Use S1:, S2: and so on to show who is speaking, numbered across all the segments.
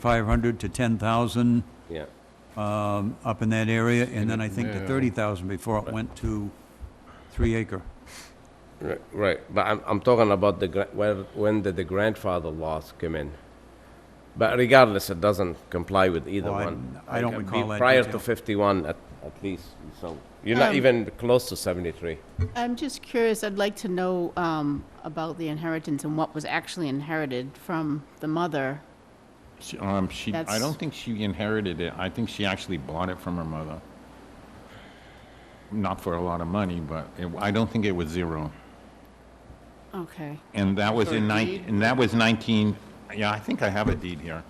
S1: 6,500 to 10,000
S2: Yeah,
S1: um, up in that area, and then I think to
S3: Yeah.
S1: 30,000 before it went to three acre.
S2: ri- right, but I'm, I'm talking about the, gra- when, when did the grandfather laws come in? But regardless, it doesn't comply with either
S1: Oh, I-
S2: one.
S1: I don't
S2: Like,
S1: recall
S2: be-
S1: that
S2: Prior
S1: detail.
S2: to fifty-one at, at least, so, you're not
S4: Um,
S2: even close to seventy-three.
S4: I'm just curious, I'd like to know um, about the inheritance and what was actually inherited from the mother.
S3: She- Um, she, I
S4: That's-
S3: don't think she inherited it. I think she actually bought it from her mother. Not for a lot of money, but it, I don't think it was zero.
S4: Okay.
S3: And that was in
S4: Or a
S3: nine,
S4: deed?
S3: and that was nineteen, yeah, I think I have a deed here,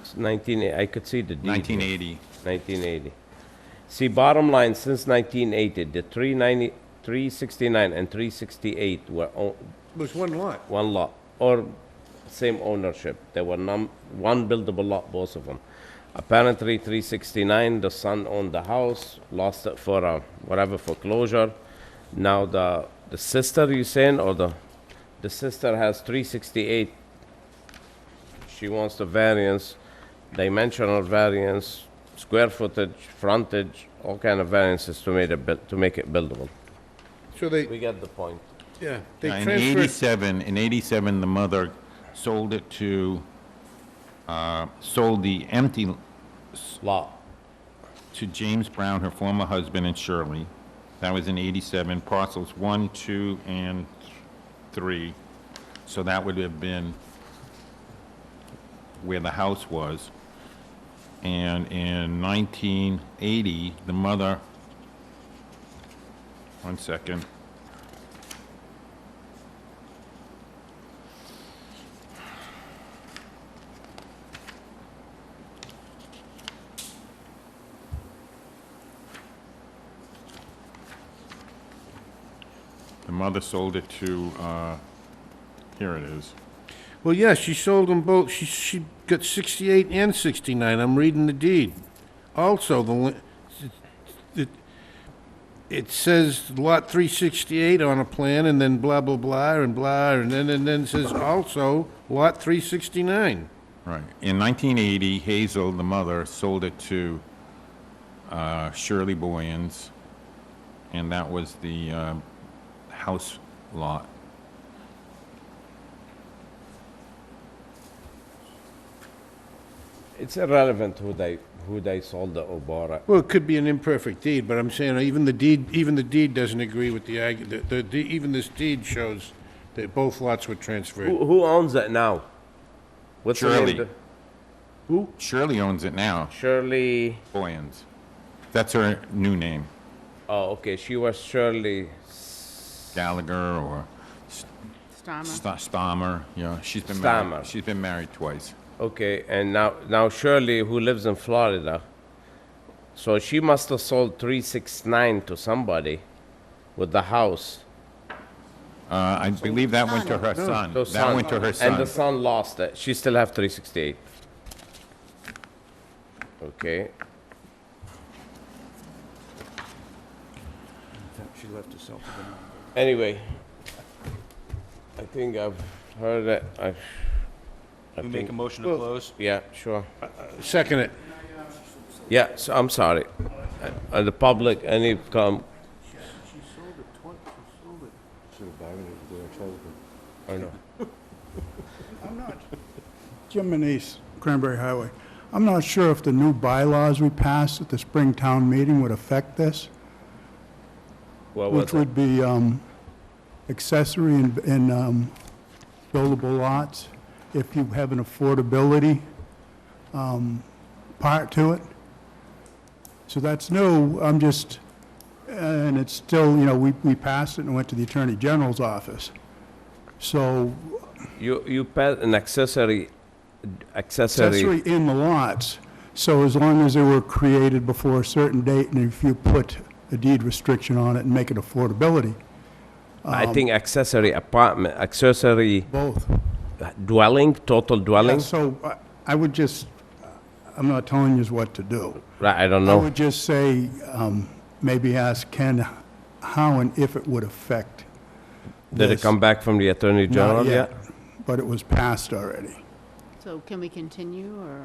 S2: It's Nineteen, I could see the deed.
S3: nineteen eighty.
S2: Nineteen eighty. See, bottom line, since nineteen eighty, the three ninety, three sixty-nine and three sixty-eight were o-
S5: was one lot.
S2: one lot, or same ownership. There were num, one buildable lot, both of them. Apparently, 369, the son owned the house, lost it for uh, whatever foreclosure. Now the, the sister, you saying, or the, the sister has 368. She wants the variance, dimensional variance, square footage, frontage, all kind of variances to make it, buil- to make it buildable.
S5: So they,
S2: We get the point.
S5: yeah, they
S3: In
S5: transferred,
S3: eighty-seven, in eighty-seven, the mother sold it to, uh, sold the empty
S2: Lot.
S3: to James Brown, her former husband, and Shirley. That was in 87, parcels 1, 2, and 3. So that would have been where the house was. And in 1980, the mother, one second. The mother sold it to, uh, here it is.
S5: well, yeah, she sold them both, she, she got 68 and 69, I'm reading the deed. Also, the, li- it, it says Lot 368 on a plan, and then blah, blah, blah, and blah, and then, and then it says also Lot 369.
S3: Right. In 1980, Hazel, the mother, sold it to uh, Shirley Boyens, and that was the uh, house lot.
S2: It's irrelevant who they, who they sold the Obara.
S5: Well, it could be an imperfect deed, but I'm saying even the deed, even the deed doesn't agree with the, argu- the, the, de- even this deed shows that both lots were transferred.
S2: Who, who owns it now? What's the name?
S3: Shirley. Shirley owns it now,
S2: Shirley,
S3: Boyens. That's her new name,
S2: oh, okay, she was Shirley,
S3: Gallagher or
S4: Starmer.
S3: Sta- Stammer, you know, she's been married,
S2: Stammer.
S3: she's been married twice.
S2: okay, and now, now Shirley, who lives in Florida. So she must have sold three six nine to somebody with the house.
S3: Uh, I believe that went to her son,
S2: So
S3: that went to her
S2: And the
S3: son.
S2: son lost it, she still have three sixty-eight. Okay,
S1: She left herself with the number.
S2: anyway, I think I've heard it, I've. I
S6: We make a
S2: think,
S6: motion to close?
S2: yeah, sure.
S5: Second it.
S2: Yeah, so I'm sorry. Uh, uh, the public, any com, I know.
S7: Jim Manise, Cranberry Highway. I'm not sure if the new bylaws we passed at the spring town meeting would affect this,
S2: What was
S7: which
S2: it?
S7: would be um, accessory and- and um, buildable lots, if you have an affordability um, part to it. So that's new, I'm just, and it's still, you know, we we passed it and went to the Attorney General's office. So
S2: You, you pass an accessory, accessory,
S7: accessory in the lots, so as long as they were created before a certain date, and if you put a deed restriction on it and make it affordability, um,
S2: I think accessory apartment, accessory
S7: both.
S2: dwelling, total dwelling?
S7: So I- I would just, I'm not telling you what to do.
S2: Right, I don't
S7: I
S2: know.
S7: would just say, um, maybe ask Ken how and if it would affect.
S2: Did it
S7: this.
S2: come back from the Attorney
S7: Not
S2: General yet?
S7: But it was passed already.
S4: So can we continue, or?